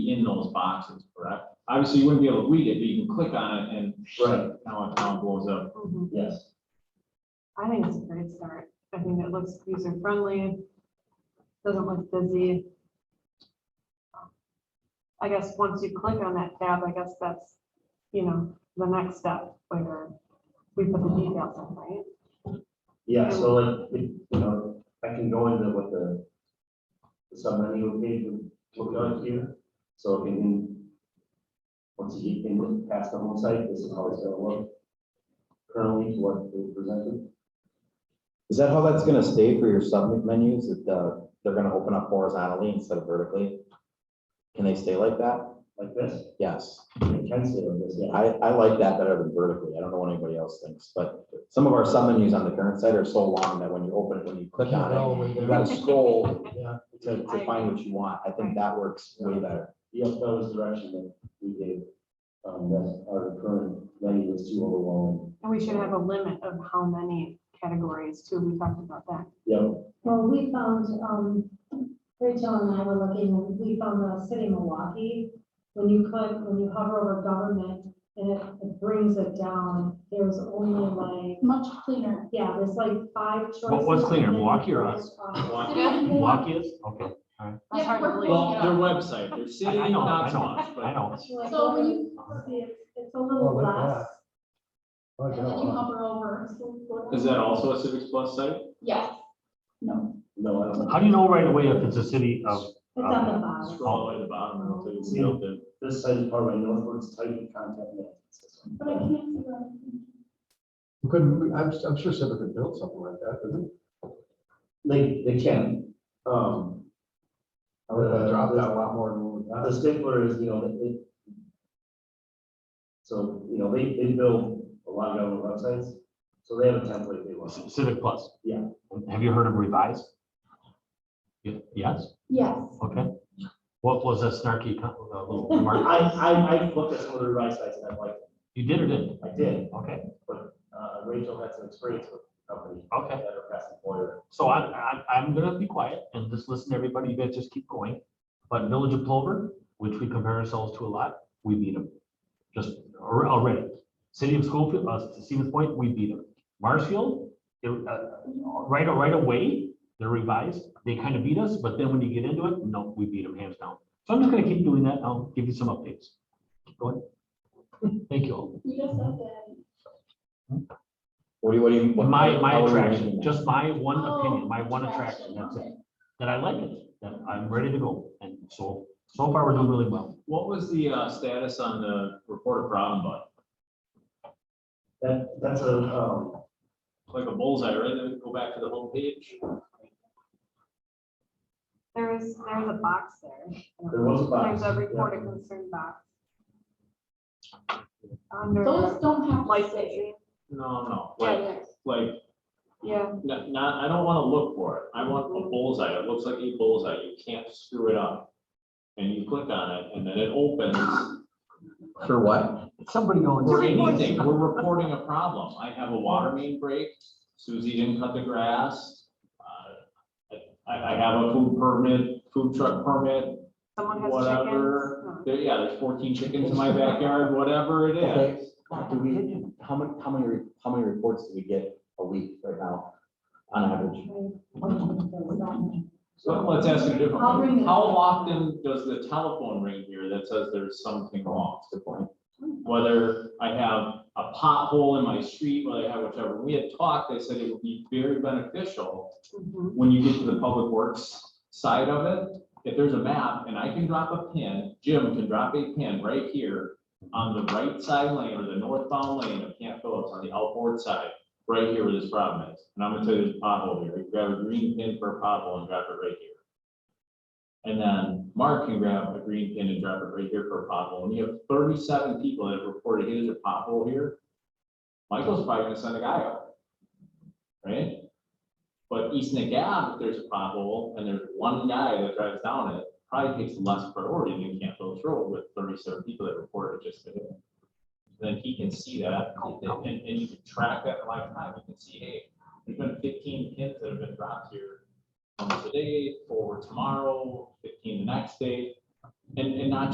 in those boxes, correct? Obviously, you wouldn't be able to read it, but you can click on it and Right. how it how it blows up. Mhm. Yes. I think it's a great start. I think it looks user friendly. Doesn't look busy. Um, I guess once you click on that tab, I guess that's, you know, the next step where we put the details in, right? Yeah, so like, if, you know, I can go into what the the submenu page would look like here, so if you can, once you can look past the home site, this is how it's gonna look currently to what they presented. Is that how that's gonna stay for your sub menus, that uh, they're gonna open up horizontally instead of vertically? Can they stay like that? Like this, Yes, it can stay like this, yeah. I, I like that better than vertically, I don't know what anybody else thinks, but some of our sub menus on the current site are so long that when you open it, when you click on it, you gotta scroll Yeah, to, to find what you want, I think that works way better. Yep, that was the direction that we gave, um, that our current menu was too overwhelming. And we should have a limit of how many categories too. We talked about that. Yep, Well, we found, um, Rachel and I were looking, and we found the city of Milwaukee. When you click, when you hover over government, and it it brings it down, there's only much cleaner. like, yeah, there's like five choices. What- what's cleaner, Milwaukee or us? Uh, Milwaukee is, okay, That's hard to Yeah, we're believe. Well, cleaning it their up. website, their city, I know, not so I know. much, I but know. like, So when you- see, It's it's a little Oh, look at less. And then uh, you hover over. so go down. is that also a Civics Plus site? Yes. No. no, I don't. How do you know right away if it's a city of, It's on Uh, the bottom. Scroll all the way to the bottom, and it'll tell you the deal then. This site is part of my Northwoods Titan contact management system. But I can't see that. Couldn't, I'm, I'm sure Civic could build something like that, couldn't it? They, they can, um. I would Uh, have dropped that a The lot more than what we got. the stickler is, you know, that it. So, you know, they, they build a lot of government websites, so they have a template they want. Civic Plus? Yeah. Have you heard of Revise? Ye- Yes, Yes. okay. What was that snarky co- uh, little I, remark? I, I've looked at some of the revised sites and I liked it, You did or didn't? I did, Okay, uh, Rachel had some experience with the company, okay. at her past employer. So I'm, I'm, I'm gonna be quiet and just listen to everybody. You guys just keep going. But Village of Plover, which we compare ourselves to a lot, we beat them. Just al- already. City of Schoolfield, uh, Stevens Point, we beat them. Marshfield, they're, uh, right, right away, they're revised. They kind of beat us, but then when you get into it, no, we beat them hands down. So I'm just gonna keep doing that. I'll give you some updates. Keep going. Thank you all. You just said that. What do you, what do you? what- My, my how are you attraction, ranking that? just my one opinion, Oh, my one attraction, that's it okay. that I like it, that I'm ready to go. And so, so far, we're doing really well. What was the uh, status on the report a problem button? That, that's a, um, Like a bullseye, right? Then go back to the home page. There is, there's a box there. there was a box. There's a report yeah. of concern box. Under Those don't have to stay. licensing. No, no, Yeah, like, yes. like Yeah. Not, not, I don't wanna look for it, I want a bullseye, it looks like a bullseye, you can't screw it up. And you click on it, and then it opens For what? Somebody for owns. anything, we're reporting a problem, I have a water main break, Susie didn't cut the grass. uh, I, I have a food permit, food truck permit, Someone has whatever, chickens. there, yeah, there's fourteen chickens in my backyard, whatever it is. Okay, do we, how many, how many, re- how many reports do we get a week right now, on average? So let's ask it a different I'll bring way. it How up. often does the telephone ring here that says there's something wrong? That's a good point. Whether I have a pothole in my street, whether I have whichever, we had talked, they said it would be very beneficial Mhm. when you get to the public works side of it. If there's a map and I can drop a pin, Jim can drop a pin right here on the right side lane or the northbound lane of Camp Phillips on the outboard side, right here where this problem is. And I'm gonna tell you there's a pothole here. You grab a green pin for a pothole and drop it right here. And then Mark can grab a green pin and drop it right here for a pothole. And you have thirty-seven people that have reported, hey, there's a pothole here. Michael's probably gonna send a guy out. Right? But East Nick Ave, if there's a pothole and there's one guy that drives down it, probably takes less priority than Camp Phillips Road with thirty-seven people that reported just to him. Then he can see that and, and and you can track that in live time. You can see, hey, there's been fifteen pins that have been dropped here from today, forward tomorrow, fifteen the next day. And, and not